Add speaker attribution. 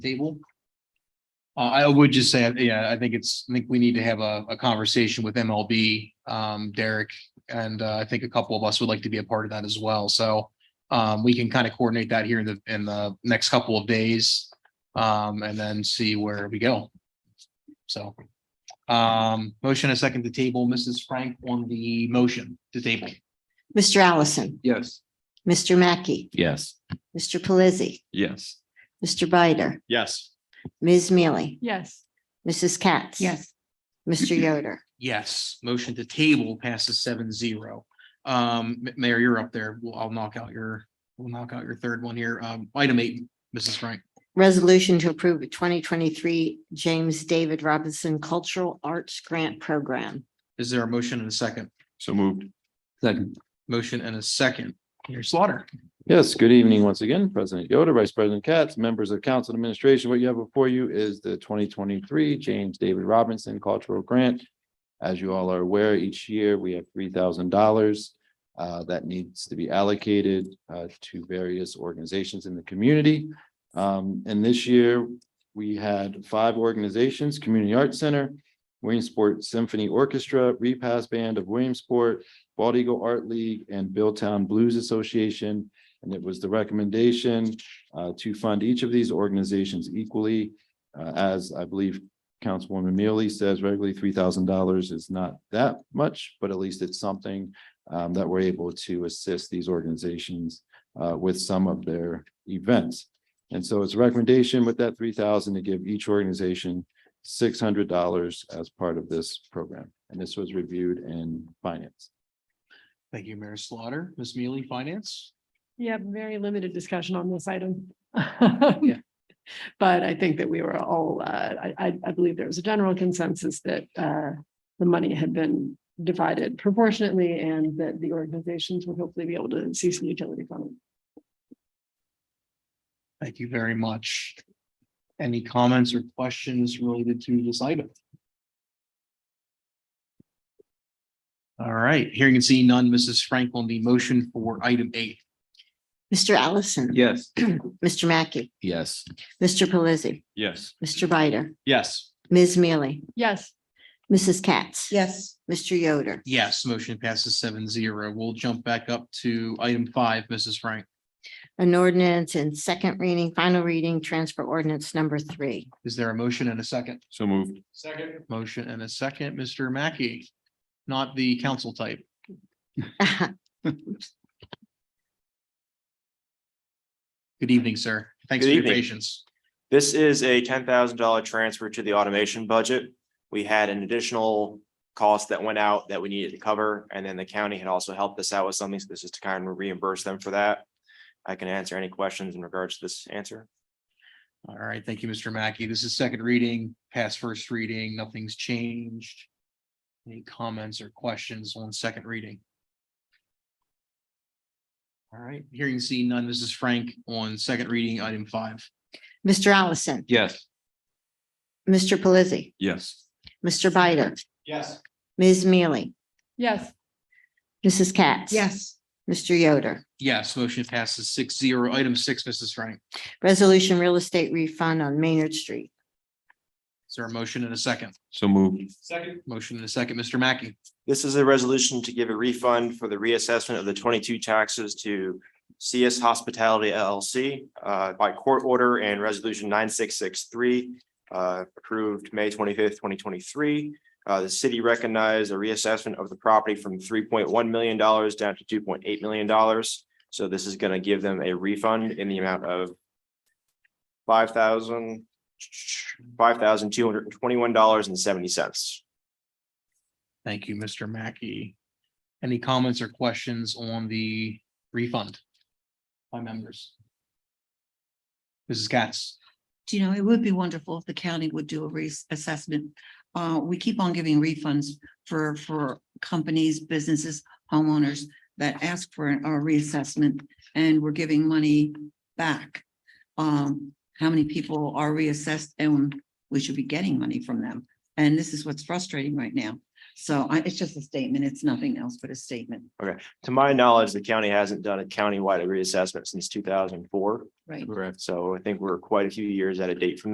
Speaker 1: table. Uh, I would just say, yeah, I think it's, I think we need to have a, a conversation with MLB, um, Derek. And, uh, I think a couple of us would like to be a part of that as well. So, um, we can kind of coordinate that here in the, in the next couple of days. Um, and then see where we go. So, um, motion a second to table, Mrs. Frank on the motion to table.
Speaker 2: Mr. Allison,
Speaker 3: Yes.
Speaker 2: Mr. Mackey,
Speaker 3: Yes.
Speaker 2: Mr. Pelisi,
Speaker 3: Yes.
Speaker 2: Mr. Bider,
Speaker 3: Yes.
Speaker 2: Ms. Mealy,
Speaker 4: Yes.
Speaker 2: Mrs. Katz.
Speaker 4: Yes.
Speaker 2: Mr. Yoder.
Speaker 1: Yes, motion to table passes seven zero. Um, M- Mayor, you're up there. Well, I'll knock out your, we'll knock out your third one here. Um, item eight, Mrs. Frank.
Speaker 2: Resolution to approve a twenty twenty-three James David Robinson Cultural Arts Grant Program.
Speaker 1: Is there a motion and a second?
Speaker 3: So moved. Second.
Speaker 1: Motion and a second. Your slaughter.
Speaker 5: Yes, good evening once again, President Yoder, Vice President Katz, members of council and administration. What you have before you is the twenty twenty-three James David Robinson Cultural Grant. As you all are aware, each year we have three thousand dollars uh, that needs to be allocated uh, to various organizations in the community. Um, And this year, we had five organizations, Community Arts Center, Williamsport Symphony Orchestra, Repass Band of Williamsport, Bald Eagle Art League, and Billtown Blues Association. And it was the recommendation uh, to fund each of these organizations equally. uh, As I believe Councilwoman Mealy says, regularly three thousand dollars is not that much, but at least it's something um, that we're able to assist these organizations uh, with some of their events. And so it's a recommendation with that three thousand dollars to give each organization six hundred dollars as part of this program. And this was reviewed in finance.
Speaker 1: Thank you, Mayor Slaughter. Ms. Mealy, Finance.
Speaker 4: Yeah, very limited discussion on this item.
Speaker 1: Yeah.
Speaker 4: But I think that we were all, uh, I, I, I believe there was a general consensus that, uh, the money had been divided proportionately and that the organizations would hopefully be able to see some utility from it.
Speaker 1: Thank you very much. Any comments or questions related to this item? All right, hearing and seeing none, Mrs. Frank on the motion for item eight.
Speaker 2: Mr. Allison.
Speaker 3: Yes.
Speaker 2: Mr. Mackey,
Speaker 5: Yes.
Speaker 2: Mr. Pelisi,
Speaker 3: Yes.
Speaker 2: Mr. Bider,
Speaker 1: Yes.
Speaker 2: Ms. Mealy,
Speaker 4: Yes,
Speaker 2: Mrs. Katz.
Speaker 6: Yes,
Speaker 2: Mr. Yoder.
Speaker 1: Yes, motion passes seven zero. We'll jump back up to item five, Mrs. Frank.
Speaker 2: An ordinance and second reading, final reading, transfer ordinance number three.
Speaker 1: Is there a motion and a second?
Speaker 3: So moved.
Speaker 1: Second. Motion and a second, Mr. Mackey, not the council type. Good evening, sir. Thanks for
Speaker 7: Good
Speaker 1: your
Speaker 7: evening.
Speaker 1: patience.
Speaker 7: This is a ten thousand dollar transfer to the automation budget. We had an additional cost that went out that we needed to cover, and then the county had also helped us out with something, so this is to kind of reimburse them for that. I can answer any questions in regards to this answer.
Speaker 1: All right, thank you, Mr. Mackey. This is second reading, past first reading, nothing's changed. Any comments or questions on second reading? All right, hearing seen none, Mrs. Frank on second reading, item five.
Speaker 2: Mr. Allison,
Speaker 3: Yes.
Speaker 2: Mr. Pelisi,
Speaker 3: Yes.
Speaker 2: Mr. Bider,
Speaker 1: Yes.
Speaker 2: Ms. Mealy,
Speaker 4: yes,
Speaker 2: Mrs. Katz.
Speaker 6: yes,
Speaker 2: Mr. Yoder.
Speaker 1: Yes, motion passes six zero. Item six, Mrs. Frank.
Speaker 2: Resolution Real Estate Refund on Maynard Street.
Speaker 1: Is there a motion and a second?
Speaker 3: So moved.
Speaker 1: Second. Motion and a second, Mr. Mackey.
Speaker 7: This is a resolution to give a refund for the reassessment of the twenty-two taxes to CS Hospitality LLC uh, by court order and resolution nine six six three uh, approved May twenty-fifth, twenty twenty-three. Uh, The city recognized a reassessment of the property from three point one million dollars down to two point eight million dollars. So this is going to give them a refund in the amount of five thousand, five thousand two hundred and twenty-one dollars and seventy cents.
Speaker 1: Thank you, Mr. Mackey. Any comments or questions on the refund? By members? Mrs. Katz,
Speaker 6: Do you know, it would be wonderful if the county would do a reassessment. Uh, we keep on giving refunds for, for companies, businesses, homeowners that ask for a reassessment and we're giving money back. Um, how many people are reassessed and we should be getting money from them And this is what's frustrating right now. So I, it's just a statement. It's nothing else but a statement,
Speaker 7: To my knowledge, the county hasn't done a countywide reassessment since two thousand and four.
Speaker 6: right?
Speaker 7: Correct. So I think we're quite a few years out of date from that.